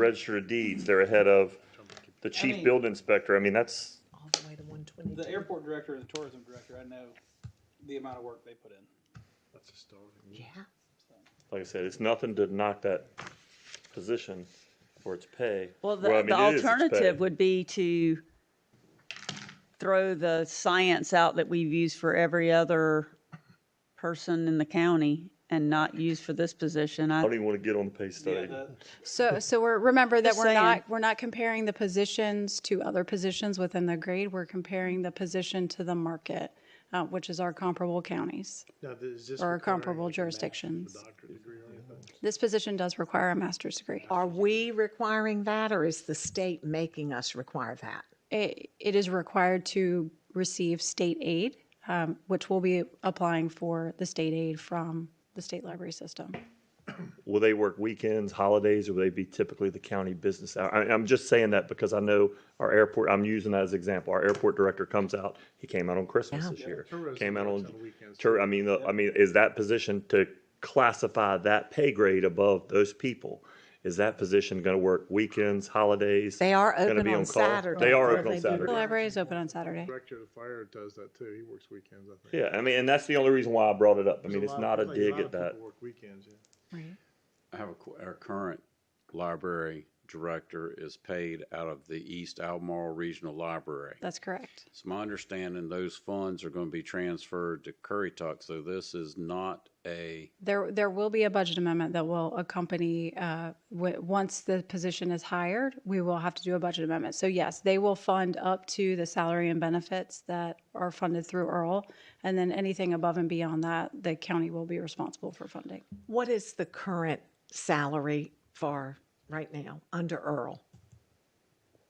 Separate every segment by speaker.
Speaker 1: register of deeds, they're ahead of the
Speaker 2: I
Speaker 1: chief
Speaker 2: mean-
Speaker 1: building inspector. I mean, that's,
Speaker 2: all the way to one twenty.
Speaker 3: The airport director and the tourism director, I know the amount of work they put in.
Speaker 4: That's a starting.
Speaker 2: Yeah,
Speaker 1: like I said, it's nothing to knock that position for its pay.
Speaker 5: Well, the,
Speaker 1: I
Speaker 5: the
Speaker 1: mean, it is its pay.
Speaker 5: alternative would be to throw the science out that we've used for every other person in the county and not use for this position.
Speaker 1: I
Speaker 5: I,
Speaker 1: don't even want to get on the pay
Speaker 3: Yeah,
Speaker 1: study.
Speaker 3: the-
Speaker 6: So, so we're, remember that
Speaker 5: Just
Speaker 6: we're
Speaker 5: saying.
Speaker 6: not, we're not comparing the positions to other positions within the grade. We're comparing the position to the market, uh, which is our comparable counties.
Speaker 4: Now, th- is this
Speaker 6: Or
Speaker 4: requiring,
Speaker 6: comparable
Speaker 4: like, a master's or
Speaker 6: jurisdictions.
Speaker 4: doctorate degree or anything?
Speaker 6: This position does require a master's degree.
Speaker 2: are we requiring that or is the state making us require that?
Speaker 6: It, it is required to receive state aid, um, which will be applying for the state aid from the state library system.
Speaker 1: Will they work weekends, holidays, or will they be typically the county business hour? I, I'm just saying that because I know our airport, I'm using that as an example. Our airport director comes out, he came out on Christmas this year.
Speaker 4: Tourism
Speaker 1: Came out
Speaker 4: works
Speaker 1: on,
Speaker 4: on the weekends,
Speaker 1: tour, I mean, the- I mean, is that position to classify that pay grade above those people? Is that position going to work weekends, holidays?
Speaker 2: They are
Speaker 1: Gonna
Speaker 2: open
Speaker 1: be
Speaker 2: on
Speaker 1: call?
Speaker 2: Saturday.
Speaker 1: They are
Speaker 2: or
Speaker 1: open on
Speaker 2: do-
Speaker 6: The
Speaker 1: Saturday.
Speaker 6: library is open on Saturday.
Speaker 4: Director of the fire does that too. He works weekends, I think.
Speaker 1: Yeah, I mean, and that's the only reason why I brought it up. I mean,
Speaker 4: There's
Speaker 1: it's
Speaker 4: lot-
Speaker 1: not a
Speaker 4: like,
Speaker 1: dig
Speaker 4: lot
Speaker 1: at
Speaker 4: of
Speaker 1: that.
Speaker 4: people Work weekends, yeah.
Speaker 6: Right.
Speaker 7: I have a, qu- our current library director is paid out of the East Albemarle Regional Library.
Speaker 6: That's correct.
Speaker 7: It's my understanding those funds are going to be transferred to Currituck, so this is not a,
Speaker 6: There, there will be a budget amendment that will accompany, uh, w- once the position is hired, we will have to do a budget amendment. So yes, they will fund up to the salary and benefits that are funded through Earl. And then anything above and beyond that, the county will be responsible for funding.
Speaker 2: What is the current salary for right now under Earl?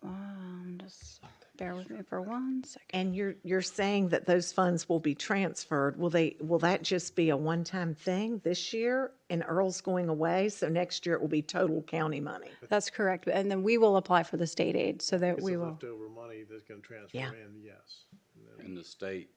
Speaker 6: Um, just bear with me for one second.
Speaker 2: And you're, you're saying that those funds will be transferred. Will they, will that just be a one-time thing this year and Earl's going away? So next year it will be total county money?
Speaker 6: That's correct. And then we will apply for the state aid so that
Speaker 4: It's
Speaker 6: we
Speaker 4: the
Speaker 6: will.
Speaker 4: leftover money that's gonna transfer
Speaker 2: Yeah.
Speaker 4: in, yes. And then-
Speaker 7: and the state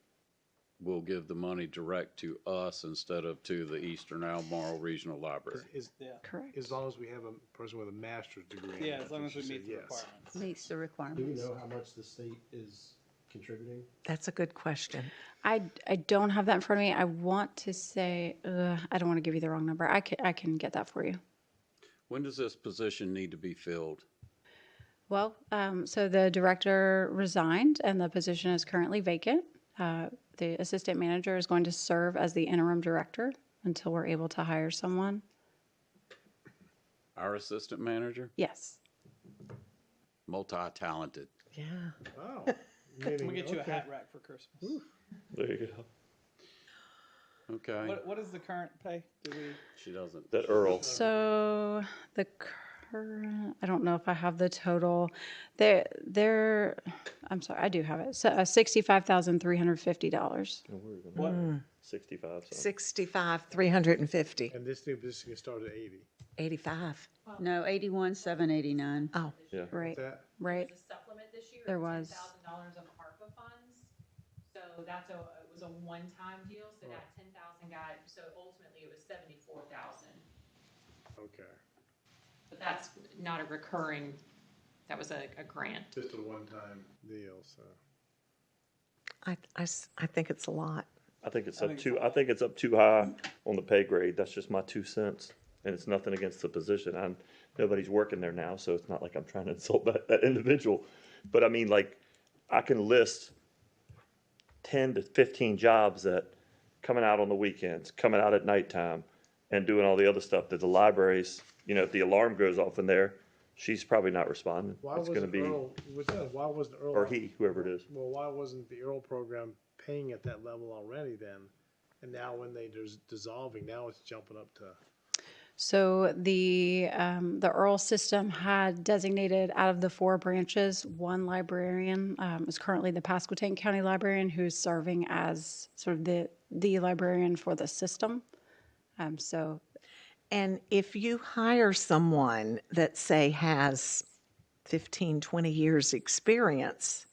Speaker 7: will give the money direct to us instead of to the Eastern Albemarle Regional Library.
Speaker 4: As,
Speaker 3: Yeah,
Speaker 6: Correct.
Speaker 4: as long as we have a person with a master's degree.
Speaker 3: yeah, as long as we meet the
Speaker 4: requirements.
Speaker 3: requirements.
Speaker 5: meets the
Speaker 8: Do we
Speaker 5: requirements.
Speaker 8: know how much the state is contributing?
Speaker 2: That's a good question.
Speaker 6: I, I don't have that in front of me. I want to say, uh, I don't want to give you the wrong number. I can, I can get that for you.
Speaker 7: When does this position need to be filled?
Speaker 6: Well, um, so the director resigned and the position is currently vacant. Uh, the assistant manager is going to serve as the interim director until we're able to hire someone.
Speaker 7: Our assistant manager,
Speaker 6: Yes.
Speaker 7: multi-talented.
Speaker 2: Yeah.
Speaker 4: Oh.
Speaker 3: We'll
Speaker 4: meaning-
Speaker 3: get you a
Speaker 4: okay.
Speaker 3: hat rack for Christmas.
Speaker 1: There you go.
Speaker 7: Okay,
Speaker 3: What, what is the current pay? Do we,
Speaker 7: she doesn't.
Speaker 1: That Earl.
Speaker 6: So the current, I don't know if I have the total. There, there, I'm sorry, I do have it. So uh, $65,350.
Speaker 3: what,
Speaker 1: Sixty-five. so.
Speaker 2: 65, 350,
Speaker 4: And this new position can start at eighty.
Speaker 2: 85.
Speaker 5: No, eighty-one, seven eighty-nine.
Speaker 2: Oh,
Speaker 6: Right,
Speaker 4: That,
Speaker 6: right.
Speaker 9: was a supplement this year.
Speaker 6: There was.
Speaker 9: Ten thousand dollars of ARPA funds. So that's a, it was a one-time deal, so that ten thousand got, so ultimately it was seventy-four thousand.
Speaker 4: okay,
Speaker 9: But that's not a recurring, that was a, a grant.
Speaker 4: just a one-time deal, so.
Speaker 2: I, I s- I think it's a lot.
Speaker 1: I think it's up too, I think it's up too high on the pay grade. That's just my two cents. And it's nothing against the position. I'm, nobody's working there now, so it's not like I'm trying to insult that, that individual. But I mean, like, I can list ten to fifteen jobs that coming out on the weekends, coming out at nighttime and doing all the other stuff that the libraries, you know, if the alarm goes off in there, she's probably not responding.
Speaker 4: Why
Speaker 1: It's gonna
Speaker 4: wasn't
Speaker 1: be,
Speaker 4: Earl, was that, why wasn't Earl?
Speaker 1: or he, whoever it is.
Speaker 4: Well, why wasn't the Earl program paying at that level already then? And now when they there's dissolving, now it's jumping up to,
Speaker 6: So the, um, the Earl system had designated out of the four branches, one librarian, um, is currently the Pasquotank County librarian who's serving as sort of the, the librarian for the system. Um, so
Speaker 2: And if you hire someone that, say, has 15, 20 years' experience,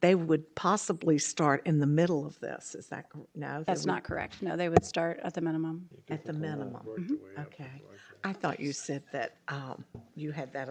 Speaker 2: they would possibly start in the middle of this. Is that, cor- no? they
Speaker 6: That's
Speaker 2: would-
Speaker 6: not correct. No, they would start at the minimum.
Speaker 2: At the minimum.
Speaker 4: Work their way up.
Speaker 2: Okay. I thought you said that um, you had that